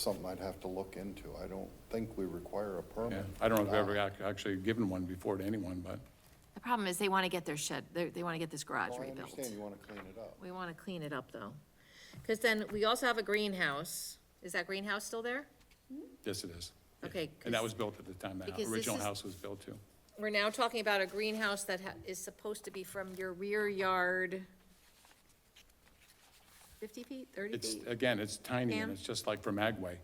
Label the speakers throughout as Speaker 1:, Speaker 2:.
Speaker 1: something I'd have to look into. I don't think we require a
Speaker 2: Yeah,
Speaker 1: permit.
Speaker 2: I don't know if we've ever
Speaker 3: Uh,
Speaker 2: ac- actually given one before to anyone, but
Speaker 3: The problem is they want to get their shed, they, they want to get this garage
Speaker 1: Well, Oh, I
Speaker 3: rebuilt.
Speaker 1: understand you want to clean it up.
Speaker 3: We want to clean it up, though. Because then we also have a greenhouse. Is that greenhouse still there?
Speaker 2: yes, it is.
Speaker 3: Okay,
Speaker 2: And that
Speaker 3: 'cause-
Speaker 2: was built at the time that
Speaker 3: because this
Speaker 2: original
Speaker 3: is-
Speaker 2: house was built too.
Speaker 3: We're now talking about a greenhouse that ha- is supposed to be from your rear yard fifty feet, thirty
Speaker 2: It's,
Speaker 3: feet
Speaker 2: again, it's tiny
Speaker 3: Pam?
Speaker 2: and it's just like from Agway,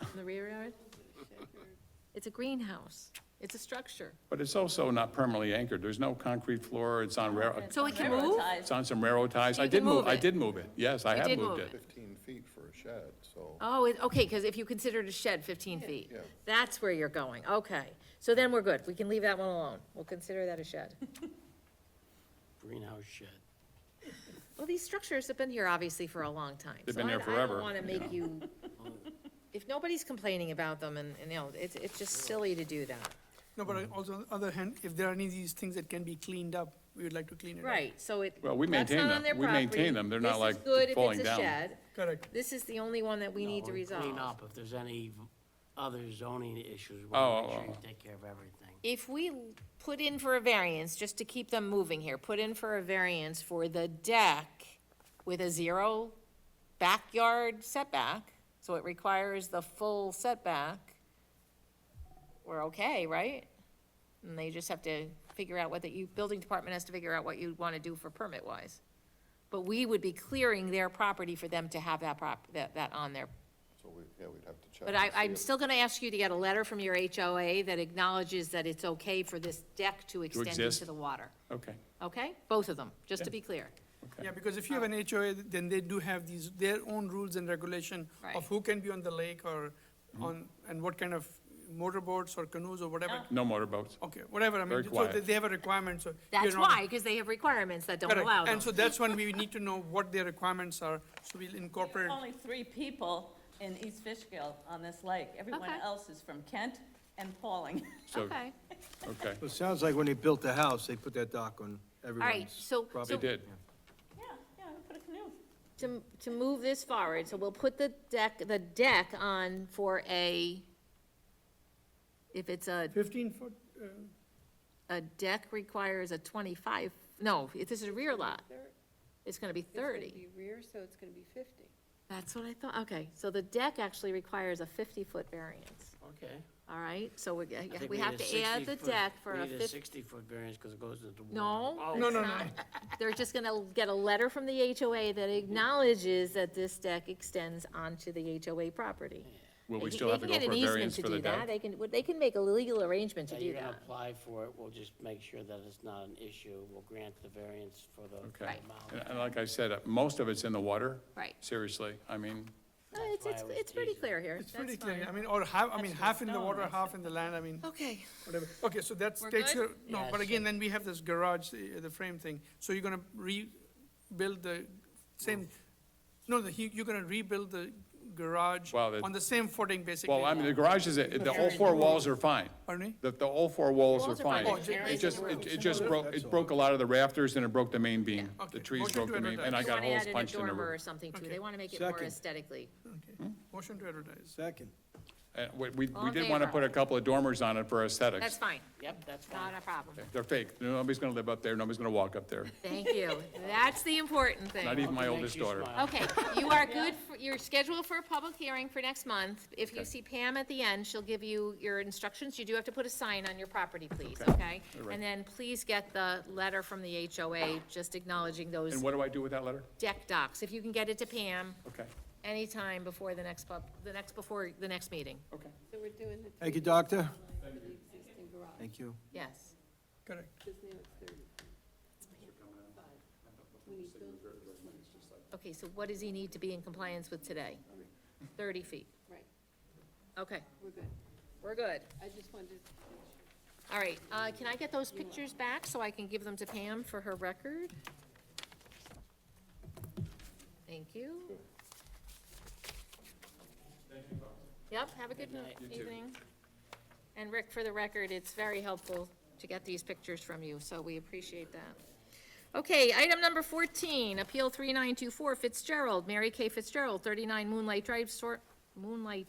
Speaker 3: from the rear yard? It's a greenhouse. It's a structure.
Speaker 2: but it's also not permanently anchored. There's no concrete floor. It's on rail,
Speaker 3: So it can move?
Speaker 2: it's on some railroad ties.
Speaker 3: So you
Speaker 2: I did
Speaker 3: can
Speaker 2: move,
Speaker 3: move
Speaker 2: I
Speaker 3: it.
Speaker 2: did move it. Yes, I
Speaker 3: You
Speaker 2: have
Speaker 3: did
Speaker 2: moved
Speaker 3: move
Speaker 2: it.
Speaker 1: 15 feet for a shed, so
Speaker 3: Oh, it, okay, because if you consider it a shed fifteen feet, that's where you're going, okay. So then we're good, we can leave that one alone, we'll consider that a shed.
Speaker 4: greenhouse shed.
Speaker 3: Well, these structures have been here obviously for a long time.
Speaker 2: They've
Speaker 3: so
Speaker 2: been
Speaker 3: I-
Speaker 2: there
Speaker 3: I
Speaker 2: forever,
Speaker 3: don't wanna make you, if nobody's complaining about them and, and, you know, it's, it's just silly to do that.
Speaker 5: No, but
Speaker 3: Mm-hmm.
Speaker 5: also on the other hand, if there are any of these things that can be cleaned up, we would like to clean it up.
Speaker 3: Right, so it.
Speaker 2: Well, we
Speaker 3: that's
Speaker 2: maintain
Speaker 3: not
Speaker 2: them.
Speaker 3: on their
Speaker 2: We maintain
Speaker 3: property.
Speaker 2: them. They're
Speaker 3: This
Speaker 2: not,
Speaker 3: is
Speaker 2: like,
Speaker 3: good if it's
Speaker 2: falling
Speaker 3: a
Speaker 2: down.
Speaker 3: shed.
Speaker 5: Correct.
Speaker 3: This is the only one that we need to
Speaker 4: Or
Speaker 3: resolve.
Speaker 4: Clean up if there's any v- other zoning issues,
Speaker 2: Oh,
Speaker 4: we want
Speaker 2: oh,
Speaker 4: make sure you
Speaker 2: oh.
Speaker 4: take care of everything.
Speaker 3: If we l- put in for a variance, just to keep them moving here, put in for a variance for the deck with a zero backyard setback, so it requires the full setback, we're okay, right? And they just have to figure out what the, you, building department has to figure out what you want to do for permit-wise. But we would be clearing their property for them to have that prop, that, that on their
Speaker 1: so we, yeah, we'd have to check.
Speaker 3: but
Speaker 1: and
Speaker 3: I,
Speaker 1: see
Speaker 3: I'm
Speaker 1: if-
Speaker 3: still gonna ask you to get a letter from your HOA that acknowledges that it's okay for this deck to extend into
Speaker 2: exist.
Speaker 3: the water,
Speaker 2: Okay,
Speaker 3: okay? Both of them, just to be clear.
Speaker 2: okay.
Speaker 5: Yeah, because if you have an HOA, then they do have these, their own rules and regulation
Speaker 3: Right. Mm-hmm.
Speaker 5: of who can be on the lake or on, and what kind of motorboats or canoes or whatever.
Speaker 2: No motorboats.
Speaker 3: Oh,
Speaker 5: Okay, whatever, I
Speaker 2: Very
Speaker 5: mean, so
Speaker 2: quiet.
Speaker 5: they- they have a requirement, so. you're
Speaker 3: That's
Speaker 5: not-
Speaker 3: why, because they have requirements that don't allow
Speaker 5: Correct,
Speaker 3: them.
Speaker 5: and so that's when we need to know what their requirements are, so we'll incorporate.
Speaker 6: Only three people in East Fishkill on this lake. Everyone
Speaker 3: Okay.
Speaker 6: else is from Kent and Pauling.
Speaker 2: So,
Speaker 3: Okay,
Speaker 2: okay,
Speaker 7: Well, It sounds like when they built the house, they put that dock on
Speaker 3: all right,
Speaker 7: everyone's
Speaker 3: so,
Speaker 2: they
Speaker 3: so
Speaker 7: property.
Speaker 2: did.
Speaker 6: Yeah, yeah, we put a canoe.
Speaker 3: to, to move this forward, so we'll put the deck, the deck on for a, if it's a,
Speaker 5: Fifteen foot, uh,
Speaker 3: a deck requires a twenty-five, no, if this is a rear lot, it's gonna be thirty.
Speaker 8: It's gonna be rear, so it's gonna be fifty.
Speaker 3: That's what I thought, okay, so the deck actually requires a fifty-foot variance,
Speaker 4: Okay.
Speaker 3: all right? So we,
Speaker 4: I think
Speaker 3: we
Speaker 4: need
Speaker 3: have
Speaker 4: a
Speaker 3: to add the
Speaker 4: 60 foot-
Speaker 3: deck for
Speaker 4: we
Speaker 3: a
Speaker 4: need a
Speaker 3: fifty,
Speaker 4: sixty-foot variance because it goes into the water.
Speaker 3: no?
Speaker 4: Oh,
Speaker 3: that's not. They're just gonna get a letter from the HOA that acknowledges that this deck extends onto the HOA property.
Speaker 2: Will we
Speaker 3: They-
Speaker 2: still
Speaker 3: they
Speaker 2: have to
Speaker 3: can
Speaker 2: go
Speaker 3: get an
Speaker 2: for a
Speaker 3: easement
Speaker 2: variance
Speaker 3: to
Speaker 2: for the
Speaker 3: do that.
Speaker 2: deck?
Speaker 3: They can, well, they can make a legal arrangement to
Speaker 4: Yeah,
Speaker 3: do
Speaker 4: you can
Speaker 3: that.
Speaker 4: apply for it, we'll just make sure that it's not an issue, we'll grant the variance for the
Speaker 2: Okay.
Speaker 3: Right.
Speaker 2: And-
Speaker 4: amount.
Speaker 2: And like I said, uh, most of it's in the water.
Speaker 3: Right.
Speaker 2: Seriously, I mean,
Speaker 3: No, Uh, it's,
Speaker 4: why
Speaker 3: it's,
Speaker 4: I was
Speaker 3: it's pretty
Speaker 4: teasing.
Speaker 3: clear here,
Speaker 5: it's
Speaker 3: that's
Speaker 5: pretty clear, I
Speaker 3: fine.
Speaker 5: mean, or half, I mean,
Speaker 6: That's
Speaker 5: half in the
Speaker 6: stone,
Speaker 5: water,
Speaker 6: that's
Speaker 5: half in the land, I mean.
Speaker 3: Okay,
Speaker 5: Whatever. Okay, so that
Speaker 3: We're
Speaker 5: takes your,
Speaker 3: good?
Speaker 5: no,
Speaker 4: Yeah,
Speaker 5: but again,
Speaker 4: sure.
Speaker 5: then we have this garage, the, the frame thing, so you're gonna rebuild the same, no, the, you- you're gonna rebuild the garage
Speaker 2: Wow, that-
Speaker 5: on the same footing, basically.
Speaker 2: well, I mean, the garage is, the all four walls are fine.
Speaker 5: Pardon me?
Speaker 2: The, the all four walls are
Speaker 3: Walls are fine,
Speaker 2: fine.
Speaker 3: the
Speaker 2: It
Speaker 3: carries
Speaker 2: just,
Speaker 3: the
Speaker 2: it, it just broke, it broke a lot of the rafters and it broke the main beam. The
Speaker 5: Okay.
Speaker 2: trees
Speaker 5: Motion
Speaker 2: broke
Speaker 5: to
Speaker 2: the main, and I
Speaker 3: They
Speaker 2: got
Speaker 3: wanna
Speaker 2: holes
Speaker 3: add in a
Speaker 2: punched in the
Speaker 3: dormer or
Speaker 2: roof.
Speaker 3: something too, they wanna make it more
Speaker 7: Second.
Speaker 3: aesthetically.
Speaker 2: Hmm?
Speaker 5: Okay. Motion to advertise.
Speaker 7: Second.
Speaker 2: And we, we-
Speaker 3: All
Speaker 2: we
Speaker 3: in
Speaker 2: did want to
Speaker 3: favor?
Speaker 2: put a couple of dormers on it for
Speaker 3: That's
Speaker 2: aesthetics.
Speaker 3: fine,
Speaker 4: Yep, that's fine.
Speaker 3: not a problem.
Speaker 2: They're fake. Nobody's going to live up there. Nobody's going to walk up there.
Speaker 3: Thank you. That's the important thing.
Speaker 2: Not even my
Speaker 4: Makes
Speaker 2: oldest
Speaker 4: you
Speaker 2: daughter.
Speaker 4: smile.
Speaker 3: Okay, you are good, for- you're scheduled for a public hearing for next month. If you
Speaker 2: Okay.
Speaker 3: see Pam at the end, she'll give you your instructions. You do have to put a sign on your property, please,
Speaker 2: Okay.
Speaker 3: okay?
Speaker 2: All right.
Speaker 3: And then please get the letter from the HOA, just acknowledging those
Speaker 2: And what do I do with that letter?
Speaker 3: deck docs. If you can get it to Pam
Speaker 2: Okay,
Speaker 3: anytime before the next pub, the next, before the next meeting,
Speaker 2: okay.
Speaker 8: So we're doing the
Speaker 7: Thank you, doctor.
Speaker 8: existing garage,
Speaker 7: Thank you.
Speaker 3: yes.
Speaker 5: Correct.
Speaker 8: because now it's thirty. Five. We need building,
Speaker 3: Okay, so what does he need to be in compliance with today? Thirty feet.
Speaker 8: right,
Speaker 3: Okay,
Speaker 8: we're good.
Speaker 3: we're good.
Speaker 8: I just wanted to make sure.
Speaker 3: All right, uh, can I get those pictures back so I can give them to Pam for her record? Thank you. Yep, have a good evening. And Rick, for the record, it's very helpful to get these pictures from you, so we appreciate that. Okay, item number 14, Appeal 3924 Fitzgerald, Mary Kay Fitzgerald, 39 Moonlight Drive, Sor- Moonlight